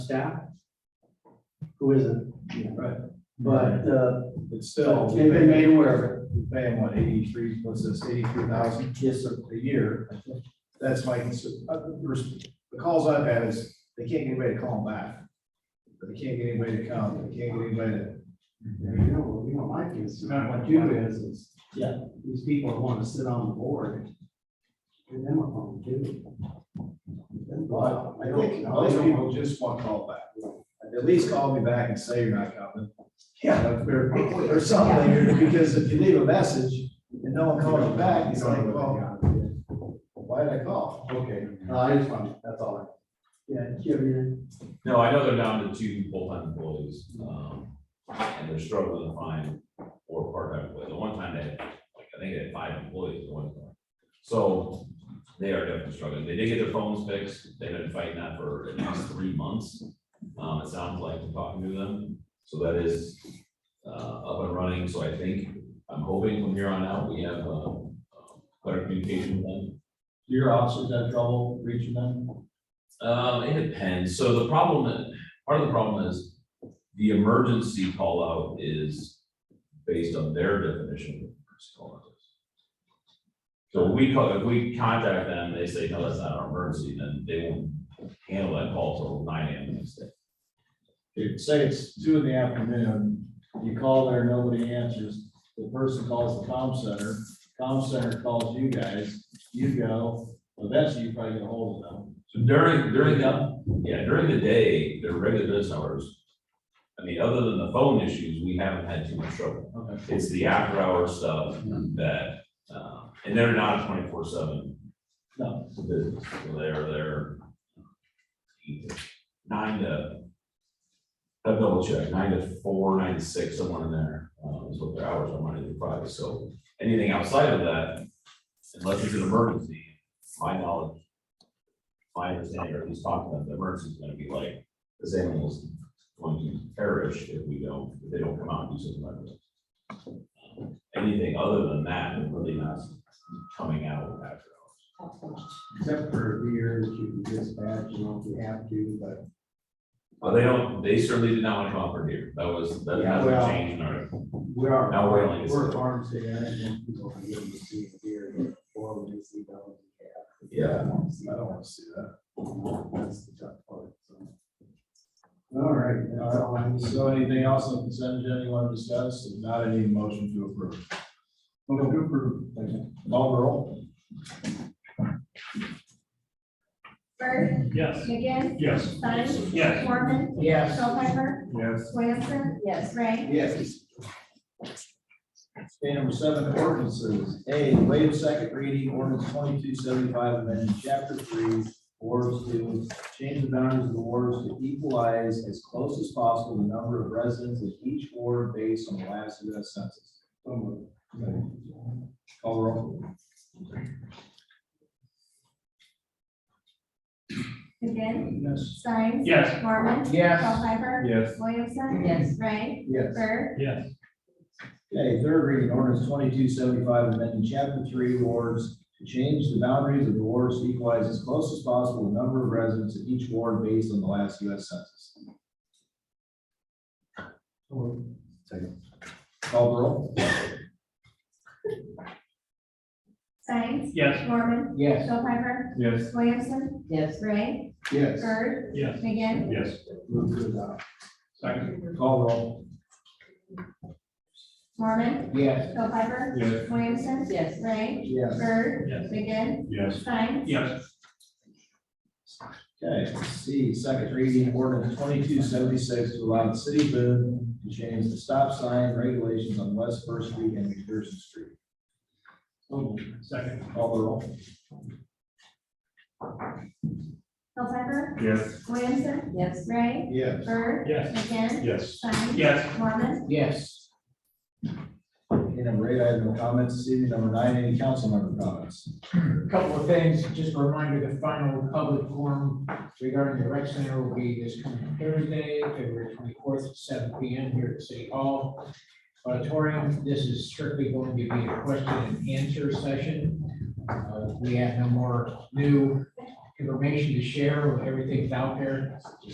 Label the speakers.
Speaker 1: staff. Who isn't,
Speaker 2: Right,
Speaker 1: but, uh,
Speaker 2: it's still.
Speaker 1: They've been made aware.
Speaker 2: We pay them, what, eighty-three, what's this, eighty-three thousand
Speaker 1: yes, sir.
Speaker 2: a year? That's my concern. Uh, there's- The calls I've had is, they can't get anybody to call them back. They can't get anybody to come, they can't get anybody to.
Speaker 3: You know, you know, my concern, what you do is, is.
Speaker 1: Yeah.
Speaker 3: These people want to sit on the board. Give them a phone too.
Speaker 2: But I
Speaker 3: don't
Speaker 2: think
Speaker 3: know.
Speaker 2: most people just want to call back. At least call me back and say you're not coming. Yeah. Or, or something, because if you leave a message and no one calls you back, it's like, well, why did I call?
Speaker 3: Okay, no,
Speaker 1: uh,
Speaker 3: I just want, that's all.
Speaker 1: Yeah, do you have any-
Speaker 4: No, I know they're down to two full-time employees, um, and they're struggling to find four part-time employees. The one time they had, like, I think they had five employees at one time. So they are definitely struggling. They did get their phones fixed. They've been fighting that for at least three months. Um, it sounds like we're talking to them, so that is, uh, up and running. So I think, I'm hoping from here on out, we have, uh, uh, better communication with them.
Speaker 2: Do your officers have trouble reaching them?
Speaker 4: Um, it depends. So the problem, that- part of the problem is the emergency call out is based on their definition of emergency call out. So we call, if we contact them, they say, no, that's not our emergency, then they won't handle that call till nine AM the next day.
Speaker 2: If, say it's two in the afternoon, you call there, nobody answers, the person calls the comm center, comm center calls you guys, you go, eventually you probably get a hold of them.
Speaker 4: So during, during the, yeah, during the day, their regular business hours, I mean, other than the phone issues, we haven't had too much trouble.
Speaker 2: Okay. Hmm.
Speaker 4: It's the after hour stuff that, uh, and they're not twenty-four seven.
Speaker 2: No.
Speaker 4: Business, So they're, they're either nine to, I'll double check, nine to four, nine to six, somewhere in there, uh, is what their hours are Monday through Friday, so anything outside of that, unless it's an emergency, my knowledge, my understanding, or at least talking about the emergency, is gonna be like, this animal's going to perish if we don't, if they don't come out and do something like this anything other than that, they're really not coming out after hours.
Speaker 3: Except for beer that you can dispatch, you know, if you have to, but.
Speaker 4: But they don't, they certainly did not want to come out for deer. That was, that
Speaker 3: Yeah,
Speaker 4: has
Speaker 3: well-
Speaker 4: a change in our,
Speaker 3: We are.
Speaker 4: Now we're only-
Speaker 3: We're a farm state, I don't think people can get to see a deer or we see dogs.
Speaker 4: yeah.
Speaker 3: I don't see
Speaker 2: I don't wanna see that.
Speaker 3: that. That's the tough part, so. All right, that's all I need.
Speaker 2: So anything else on consent agenda you want to discuss? If not, any motion to approve. Motion to approve. Call the roll.
Speaker 5: Bird,
Speaker 6: Yes.
Speaker 5: McGinn,
Speaker 6: Yes.
Speaker 5: Stein.
Speaker 6: Yes.
Speaker 5: Mormon.
Speaker 3: Yes.
Speaker 5: Hilheimer,
Speaker 6: Yes.
Speaker 5: Williamson. Yes. Ray.
Speaker 2: Yes. Okay, number seven, ordinances. A, waive second reading, ordinance twenty-two seventy-five, amending chapter three, wards to change the boundaries of the wards to equalize as close as possible the number of residents in each ward based on the last U.S. census. So moved. Call the roll.
Speaker 5: McGinn,
Speaker 2: Yes.
Speaker 5: Stein.
Speaker 6: Yes.
Speaker 5: Mormon.
Speaker 3: Yes.
Speaker 5: Hilheimer.
Speaker 6: Yes.
Speaker 5: Williamson. Yes. Ray.
Speaker 2: Yes.
Speaker 5: Bird,
Speaker 6: Yes.
Speaker 2: Okay, third reading ordinance twenty-two seventy-five, amending chapter three wards to change the boundaries of the wards to equalize as close as possible the number of residents in each ward based on the last U S census. Second. Call the roll.
Speaker 5: Stein.
Speaker 6: Yes.
Speaker 5: Mormon.
Speaker 3: Yes.
Speaker 5: Hilheimer,
Speaker 6: Yes.
Speaker 5: Williamson. Yes. Ray.
Speaker 2: Yes.
Speaker 5: Bird,
Speaker 6: Yes.
Speaker 5: McGinn.
Speaker 6: Yes.
Speaker 2: Move to adopt.
Speaker 6: Second.
Speaker 2: Call roll.
Speaker 5: Mormon.
Speaker 2: Yes.
Speaker 5: Hilheimer.
Speaker 6: Yes.
Speaker 5: Williamson. Yes. Ray.
Speaker 2: Yes.
Speaker 5: Bird,
Speaker 6: Yes.
Speaker 5: McGinn,
Speaker 6: Yes.
Speaker 5: Stein.
Speaker 6: Yes.
Speaker 2: Okay, C, second reading ordinance twenty-two seventy-six to allow the city of Boone to change the stop sign regulations on West First Street and McPherson Street.
Speaker 6: Second.
Speaker 2: Call the roll.
Speaker 5: Hilheimer,
Speaker 6: Yes.
Speaker 5: Williamson. Yes. Ray.
Speaker 2: Yes.
Speaker 5: Bird,
Speaker 6: Yes.
Speaker 5: McGinn,
Speaker 6: Yes.
Speaker 5: Stein.
Speaker 6: Yes.
Speaker 5: Mormon.
Speaker 2: Yes. Okay, number eight, I have no comments. This evening, number nine, any council member comments?
Speaker 7: A couple of things, just a reminder, the final public forum regarding the rec center will be this coming Thursday, February twenty-fourth, at seven P M here at City Hall auditorium. This is strictly going to be a question and answer session. Uh, We have no more new information to share, everything's out there.